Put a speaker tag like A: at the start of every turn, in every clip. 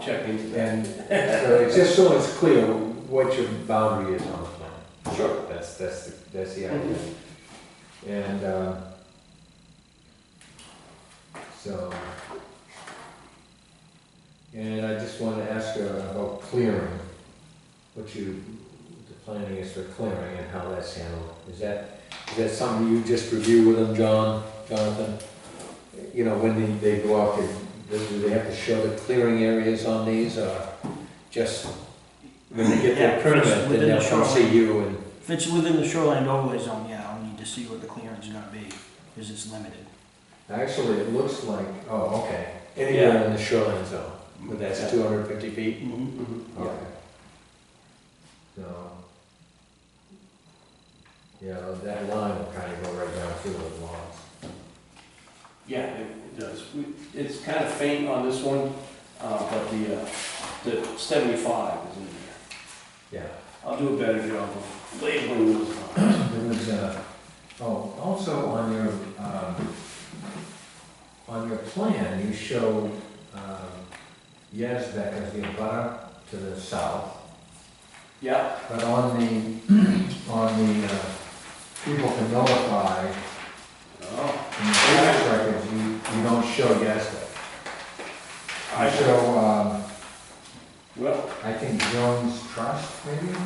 A: check into that.
B: And so just so it's clear what your boundary is on the plan.
A: Sure.
B: That's, that's, the- that's the idea. And, uh, so, and I just want to ask you about clearing, what you, the planning is for clearing and how that's handled. Is that, is that something you just review with them, John, Jonathan? You know, when they, they go out, they, do they have to show the clearing areas on these, or just when they get
C: Yeah,
B: their permit,
C: just
B: then
C: within the
B: they'll come see you and
C: If it's within the shoreline overlay zone, yeah, I'll need to see what the clearance is gonna be, because it's limited.
B: Actually, it looks like, oh, okay, anywhere in the shoreline zone, but that's two hundred fifty feet?
C: Mhm.
A: Yeah.
B: Okay. So. Yeah, that line will kind of go right down through those lots.
A: Yeah, it it does. We- It's kind of faint on this one, uh, but the, uh, the seventy-five is in there.
B: Yeah.
A: I'll do a better job of labeling those lines.
B: There was, uh, oh, also on your, um, on your plan, you show, um, Yazbek as the abutter to the south.
A: Yeah,
B: But on the, on the, uh, people can notify,
A: oh,
B: in the tax records, you, you don't show Yazbek.
A: I
B: You
A: should,
B: show, um,
A: well,
B: I think Jones Trust, maybe?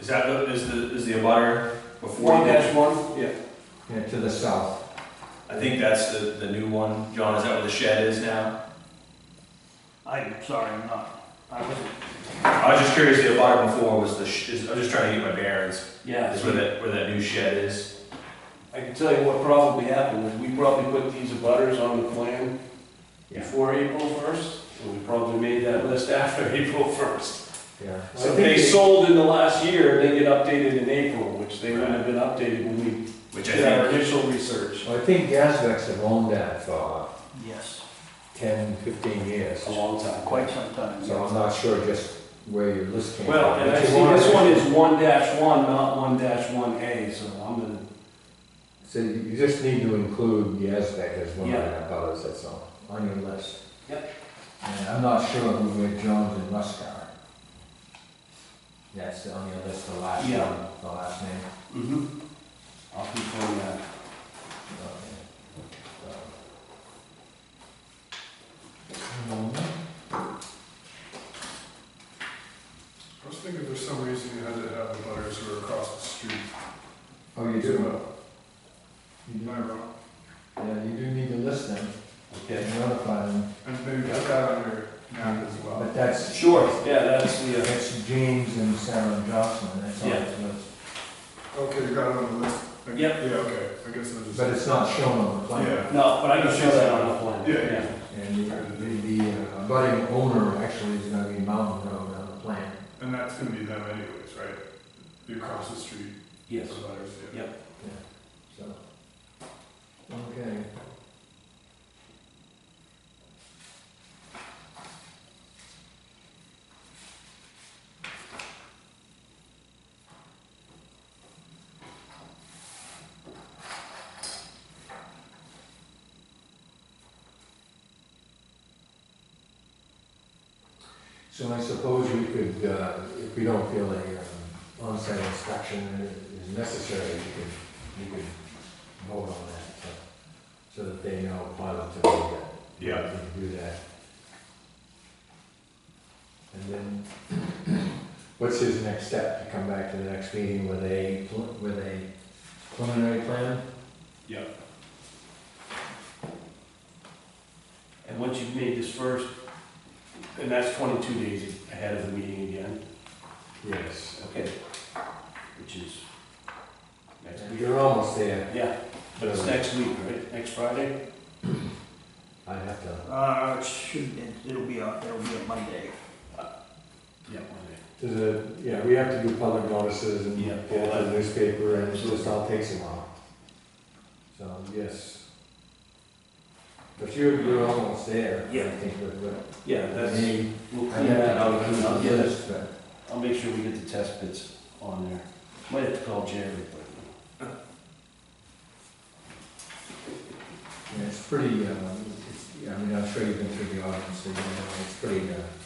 D: Is that, the- is the, is the abutter before?
A: one
D: you?
A: dash one, yeah.
B: Yeah, to the south.
D: I think that's the, the new one. John, is that where the shed is now?
C: I'm sorry, I'm not, I wasn't,
D: I was just curious, the abutter before was the, sh- is- I was just trying to get my bearings.
A: Yeah,
D: Is where that, where that new shed is?
A: I can tell you what probably happened, is we probably put these abutters on the plan before April first, and we probably made that list after April first.
B: Yeah.
A: So if they sold in the last year, they get updated in April, which they wouldn't have been updated when we
D: Which I
A: did our
D: think,
A: initial research.
B: Well, I think Yazbek's have owned that for
C: yes,
B: ten, fifteen years.
A: A long time.
C: quite some time.
B: So I'm not sure just where your list came from.
A: Well, and
B: but you
A: I see
B: want-
A: this one is one dash one, not one dash one A, so I'm gonna,
B: So you just need to include Yazbek as one of
A: Yeah.
B: the abutters, that's all, on your list.
A: Yep.
B: And I'm not sure who where Jones and Rusk are. That's on your list, the last
A: Yeah.
B: one, the last name.
A: mm-hmm, I'll confirm that.
E: I was thinking for some reason you had to have the butters who were across the street.
B: Oh, you
E: as
B: do,
E: well.
B: you do,
E: Am I wrong?
B: yeah, you do need to list them
A: Okay.
B: and notify them,
E: And maybe put that on your map as well.
B: but that's.
A: Sure, yeah, that's the, uh,
B: That's James and Sarah and Jocelyn, that's all
A: Yeah.
B: it was.
E: Okay, you got it on the list? Okay,
A: Yep.
E: Yeah, okay, I guess I'll just.
B: But it's not shown on the plan.
E: Yeah.
A: no, but I can show that on the plan.
E: Yeah, yeah.
B: And the, the- the uh, budding owner actually is gonna be Mountain Road on the plan.
E: And that's gonna be them anyways, right? You cross the street, the
A: Yes.
E: butters, yeah.
A: Yep.
B: So, okay. So I suppose we could, uh, if we don't feel a um, on-site inspection is necessary, we could you could vote on that, so, so that they know positively that.
E: Yeah.
B: They can do that. And then, what's his next step, to come back to the next meeting with a, pl- with a preliminary plan?
A: And once you've made this first, and that's twenty-two days ahead of the meeting again,
B: Yes.
A: okay, which is next week.
B: You're almost there,
A: Yeah, but it's next week, right? Next Friday?
B: I have to,
C: Uh, it should, it- it'll be a, it'll be a Monday.
A: Yeah, Monday.
B: to the, yeah, we have to do public notices and
A: Yeah.
B: get it to the newspaper, and it just all takes a while. So, yes. But you're, you're almost there, I
A: Yeah.
B: think, with, with
A: Yeah, that's,
B: Me,
A: we'll
B: I
A: clean that out,
B: have to
A: I'll
B: do
A: get it,
B: this, but
A: I'll make sure we get the test bits on there. Might have to call Jerry,
B: yeah, it's pretty, um, it's, I mean, I'm sure you've been through the audit, so you know, it's pretty, uh,